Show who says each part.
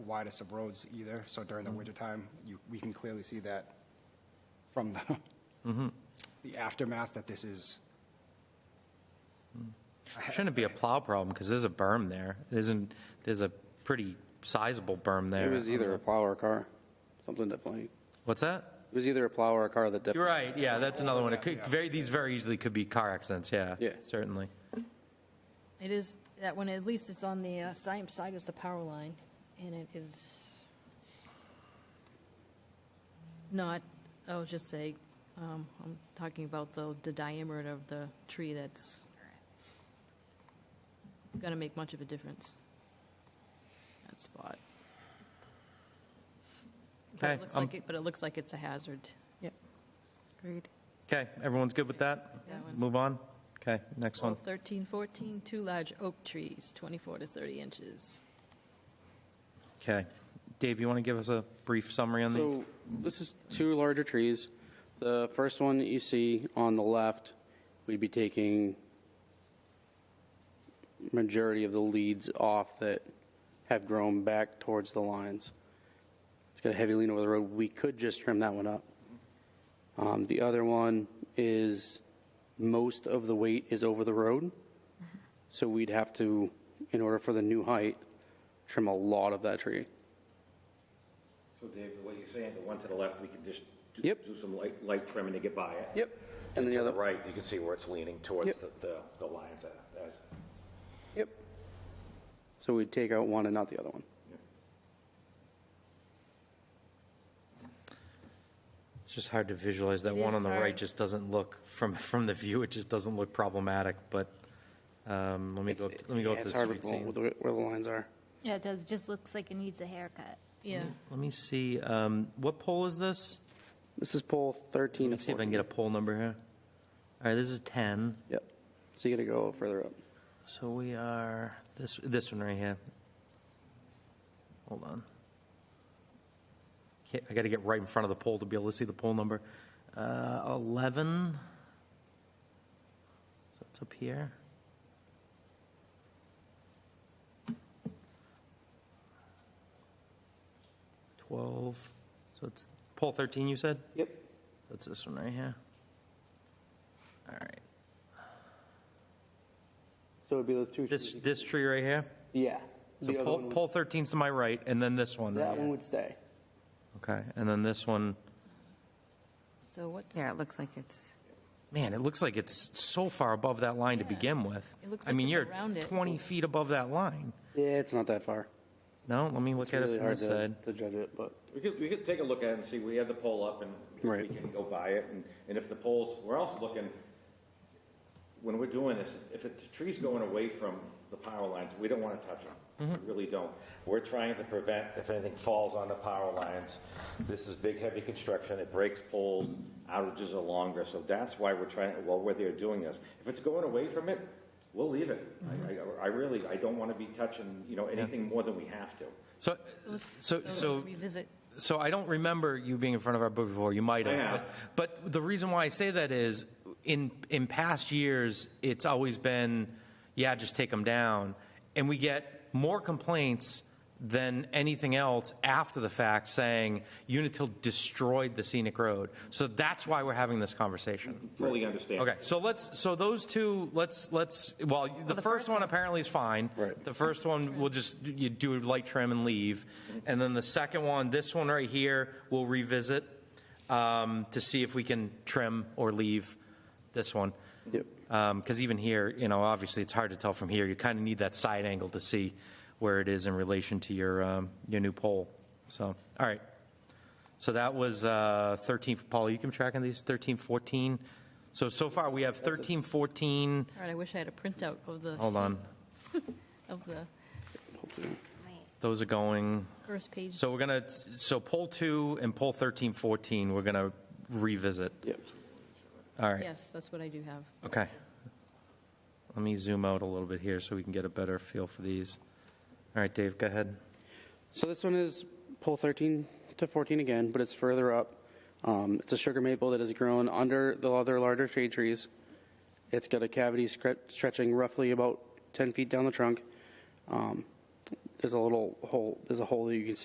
Speaker 1: widest of roads either, so during the wintertime, you, we can clearly see that from the, the aftermath that this is.
Speaker 2: It Shouldn't be a plow problem because there's a berm there. There's an, there's a pretty sizable berm there.
Speaker 3: It was either a plow or a car, something that played.
Speaker 2: What's that?
Speaker 3: It was either a plow or a car that dipped.
Speaker 2: You're right, yeah, that's another one. It could, very, these very easily could be car accidents, yeah.
Speaker 3: Yeah.
Speaker 2: Certainly.
Speaker 4: It is, that one, at least it's on the uh, same side as the power line, and it is not, I'll just say, um, I'm talking about the, the diameter of the tree that's gonna make much of a difference. That spot. But it
Speaker 2: Okay,
Speaker 4: looks
Speaker 2: um,
Speaker 4: like it- But it looks like it's a hazard,
Speaker 5: Yep. Agreed.
Speaker 2: Okay, everyone's good with that?
Speaker 4: that one.
Speaker 2: Move on? Okay, next one.
Speaker 4: 13, 14, two large oak trees, 24 to 30 inches.
Speaker 2: Okay. Dave, you want to give us a brief summary on these?
Speaker 3: So this is two larger trees. The first one that you see on the left, we'd be taking majority of the leads off that have grown back towards the lines. It's got a heavy lean over the road. We could just trim that one up. Um, the other one is most of the weight is over the road. So we'd have to, in order for the new height, trim a lot of that tree.
Speaker 6: So Dave, what you're saying, the one to the left, we can just do-
Speaker 3: Yep.
Speaker 6: do some light, light trimming to get by it.
Speaker 3: Yep. And the
Speaker 6: To
Speaker 3: other,
Speaker 6: the right, you can see where it's leaning towards
Speaker 3: Yep.
Speaker 6: the, the- the lines. that- that's-
Speaker 3: Yep. So we'd take out one and not the other one.
Speaker 2: It's just hard to visualize. That
Speaker 4: It
Speaker 2: one
Speaker 4: is
Speaker 2: on the right
Speaker 4: hard.
Speaker 2: just doesn't look, from, from the view, it just doesn't look problematic, but, um, let me go, let me go up to
Speaker 3: It's
Speaker 2: the
Speaker 3: hard with
Speaker 2: street
Speaker 3: the-
Speaker 2: scene.
Speaker 3: with the- where the lines are.
Speaker 5: Yeah, it does, just looks like it needs a haircut.
Speaker 4: Yeah.
Speaker 2: Let me see, um, what pole is this?
Speaker 3: This is pole 13
Speaker 2: Let me
Speaker 3: to
Speaker 2: see if I can
Speaker 3: 14.
Speaker 2: get a poll number here. All right, this is 10.
Speaker 3: Yep. So you gotta go further up.
Speaker 2: So we are, this, this one right here. Hold on. Okay, I got to get right in front of the poll to be able to see the poll number. Uh, 11. So it's up here. Twelve, so it's poll thirteen, you said?
Speaker 3: Yep.
Speaker 2: That's this one right here. All right.
Speaker 3: So it'd be those two.
Speaker 2: This,
Speaker 3: trees.
Speaker 2: this tree right here?
Speaker 3: Yeah.
Speaker 2: So
Speaker 3: The other
Speaker 2: pole,
Speaker 3: one would-
Speaker 2: pole 13's to my right, and then this one. right
Speaker 3: That
Speaker 2: here.
Speaker 3: one would stay.
Speaker 2: Okay, and then this one,
Speaker 4: So what's?
Speaker 5: Yeah, it looks like it's,
Speaker 2: man, it looks like it's so far above that line to
Speaker 4: Yeah.
Speaker 2: begin with.
Speaker 4: It looks
Speaker 2: I mean,
Speaker 4: like
Speaker 2: you're
Speaker 4: it's around it.
Speaker 2: 20 feet above that line.
Speaker 3: Yeah, it's not that far.
Speaker 2: No, let me look
Speaker 3: It's
Speaker 2: at
Speaker 3: really
Speaker 2: it from
Speaker 3: hard
Speaker 2: this
Speaker 3: to
Speaker 2: side.
Speaker 3: to judge it, but
Speaker 6: We could, we could take a look at it and see, we have the pole up and we
Speaker 3: Right.
Speaker 6: can go by it. And, and if the poles, we're also looking, when we're doing this, if it's, the tree's going away from the power lines, we don't want to touch them. We really don't. We're trying to prevent if anything falls on the power lines. This is big, heavy construction. It breaks poles. Outages are longer. So that's why we're trying, while we're there doing this. If it's going away from it, we'll leave it. I, I- I really, I don't want to be touching, you know, anything more than we have to.
Speaker 2: So, so, so,
Speaker 4: Revisit.
Speaker 2: so I don't remember you being in front of our board before, you might
Speaker 6: I
Speaker 2: have.
Speaker 6: have.
Speaker 2: But but the reason why I say that is, in, in past years, it's always been, yeah, just take them down. And we get more complaints than anything else after the fact saying Unitil destroyed the scenic road. So that's why we're having this conversation.
Speaker 6: Fully understand.
Speaker 2: Okay, so let's, so those two, let's, let's, well, the first one apparently is fine.
Speaker 3: Right.
Speaker 2: The first one, we'll just, you do a light trim and leave. And then the second one, this one right here, we'll revisit um, to see if we can trim or leave this one.
Speaker 3: Yep.
Speaker 2: Because Um, even here, you know, obviously, it's hard to tell from here. You kind of need that side angle to see where it is in relation to your, um, your new pole. So, all right. So that was uh, 13, Paul, you can track on these, 13, 14. So, so far, we have 13, 14,
Speaker 4: All right, I wish I had a printout of the,
Speaker 2: hold on,
Speaker 4: of the
Speaker 3: hopefully.
Speaker 5: wait,
Speaker 2: those are going,
Speaker 4: first page.
Speaker 2: so we're going to, so poll two and poll 13, 14, we're going to revisit.
Speaker 3: Yep.
Speaker 2: All right.
Speaker 4: Yes, that's what I do have.
Speaker 2: Okay. Let me zoom out a little bit here so we can get a better feel for these. All right, Dave, go ahead.
Speaker 3: So this one is pole 13 to 14 again, but it's further up. Um, it's a sugar maple that has grown under the other larger shade trees. It's got a cavity scre- stretching roughly about 10 feet down the trunk. Um, there's a little hole, there's a hole that you can see